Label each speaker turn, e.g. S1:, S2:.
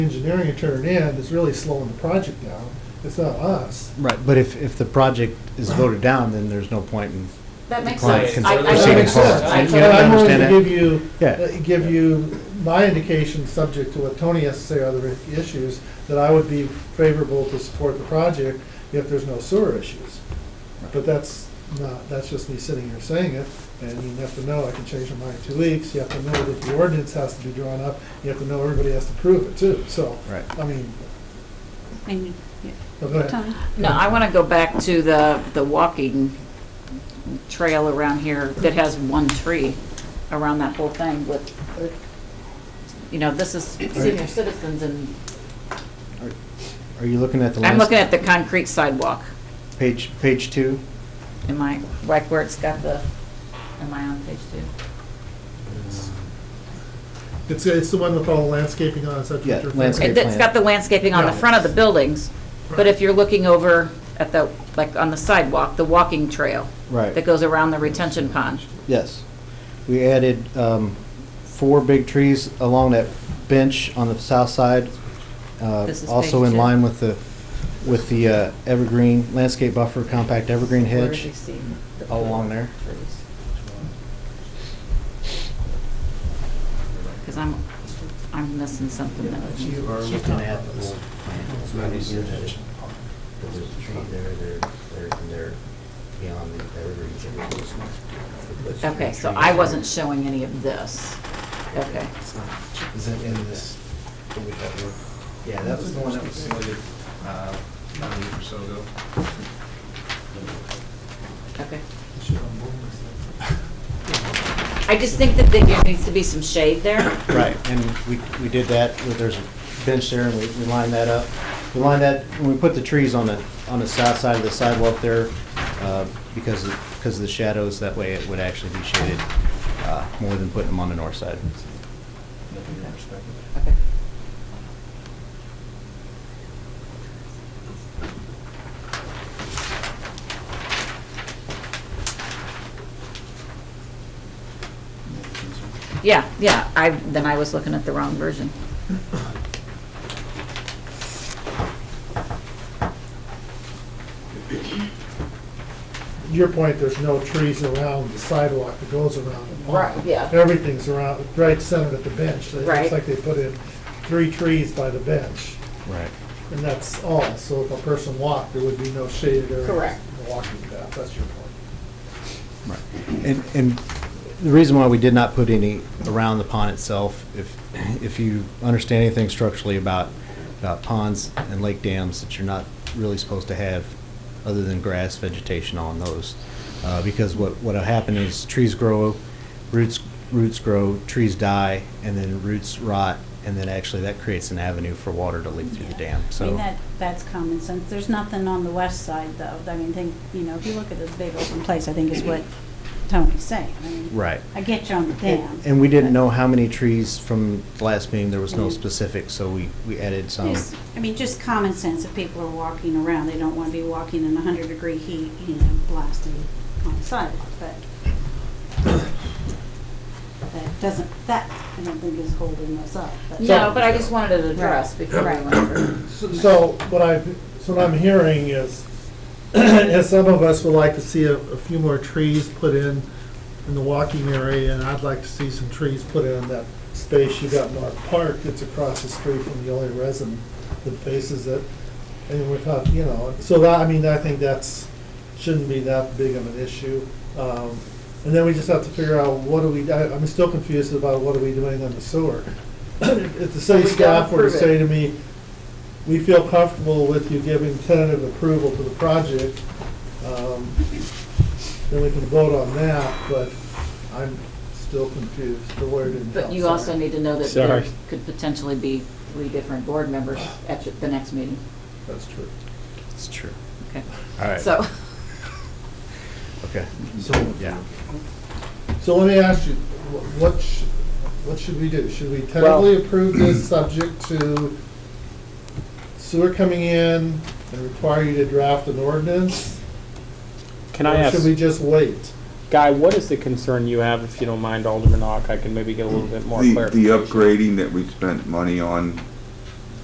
S1: engineering it turned in that's really slowing the project down. It's not us.
S2: Right, but if, if the project is voted down, then there's no point in,
S3: That makes
S2: Client can
S3: sense. I- I
S2: certainly
S1: Does that
S3: totally
S1: make sense?
S2: proceed
S3: understand.
S1: And
S2: forward. You have
S3: I totally
S2: to
S1: I'm willing
S2: understand
S1: to
S2: that.
S1: give you,
S2: yeah,
S1: uh, give you my indication, subject to what Tony has to say, other issues, that I would be favorable to support the project if there's no sewer issues. But that's not, that's just me sitting here saying it, and you have to know, I can change my mind in two weeks, you have to know that the ordinance has to be drawn up, you have to know everybody has to prove it too, so,
S2: right.
S1: I mean,
S4: And, yeah,
S1: oh, go ahead.
S4: Tony?
S3: No, I want to go back to the, the walking trail around here that has one tree around that whole thing with, you know, this is senior citizens and,
S2: Are you looking at the
S3: I'm looking
S2: last,
S3: at the concrete sidewalk.
S2: page, page two?
S3: Am I, like where it's got the, am I on page two?
S1: It's, it's the one with all the landscaping on, is that what
S2: Yeah,
S1: you're referring to?
S2: landscape.
S3: It- It's got the landscaping on the
S1: Yeah.
S3: front of the buildings, but
S1: Right.
S3: if you're looking over at the, like on the sidewalk, the walking trail that
S2: Right,
S3: goes around the retention pond.
S2: yes. We added um, four big trees along that bench on the south side. uh,
S3: This is
S2: Also
S3: page
S2: in
S3: two.
S2: line with the, with the uh, evergreen, landscape buffer, compact evergreen
S3: Where do
S2: hedge.
S3: you see the
S2: all along there.
S3: trees? Because I'm, I'm missing something that,
S1: You
S5: are
S1: she's
S5: looking
S1: not
S5: at
S1: on
S5: the
S1: this.
S5: old plant. It's not easy to touch. There's a tree there, there, there, and there, beyond the evergreens. and it was- it was
S3: okay, so
S5: trees.
S3: I wasn't showing any of this. Okay.
S5: Is that in this, what we have here?
S6: Yeah, that was the one that was submitted uh, about a week or so ago.
S3: Okay. I just think that there needs to be some shade there.
S2: Right, and we, we did that, where there's a bench there, and we, we lined that up. We lined that, and we put the trees on the, on the south side of the sidewalk there, uh, because, of- because of the shadows, that way it would actually be shaded, uh, more than putting them on the north side.
S3: Okay. Yeah, yeah, I, then I was looking at the wrong version.
S1: Your point, there's no trees around the sidewalk that goes around the pond.
S3: Right, yeah.
S1: Everything's around, right centered at the bench. It
S3: Right.
S1: looks like they put in three trees by the bench,
S2: Right.
S1: and that's all. So if a person walked, there would be no shaded area.
S3: Correct.
S1: Walking path, that's your point.
S2: Right. And, and the reason why we did not put any around the pond itself, if, if you understand anything structurally about, about ponds and lake dams that you're not really supposed to have other than grass vegetation on those. Uh, because what, what'll happen is trees grow, roots, roots grow, trees die, and then roots rot, and then actually that creates an avenue for water to leak through the dam,
S4: I mean,
S2: so.
S4: that, that's common sense. There's nothing on the west side, though. I mean, think, you know, if you look at this big open place, I think is what Tony's saying. I mean,
S2: Right.
S4: I get you on the dam.
S2: And we didn't know how many trees from the last meeting, there was no
S4: Mhm.
S2: specific, so we, we added some.
S4: Yes, I mean, just common sense. If people are walking around, they don't want to be walking in 100-degree heat, you know, blasting on the sidewalk, but that doesn't, that, I don't think is holding us up.
S3: No, but I just wanted it addressed before I
S4: Right.
S3: went over.
S1: So- So what I, so what I'm hearing is, as some of us would like to see a, a few more trees put in in the walking area, and I'd like to see some trees put in that space you got North Park that's across the street from the only resident that faces it. And we're talking, you know, so that, I mean, I think that's, shouldn't be that big of an issue. Um, And then we just have to figure out what do we, I- I'm still confused about what are we doing on the sewer. If the city
S3: We gotta
S1: staff were to
S3: approve it.
S1: say to me, we feel comfortable with you giving tentative approval to the project, um, then we can vote on that, but I'm still confused. The lawyer didn't help.
S3: But you
S1: sorry.
S3: also need to know that there could potentially be three different board members at the next meeting.
S1: That's true.
S2: It's true.
S3: Okay,
S2: All right.
S3: so,
S2: Okay,
S5: So,
S2: yeah.
S1: So let me ask you, wh- what, sh- what should we do? Should we tentatively approve this subject to sewer coming in and require you to draft an ordinance?
S7: Can I
S1: Or should we
S7: ask,
S1: just wait?
S7: Guy, what is the concern you have, if you don't mind, Alderman Ock? I can maybe get a little bit more
S8: The,
S7: clarification.
S8: the upgrading that we spent money on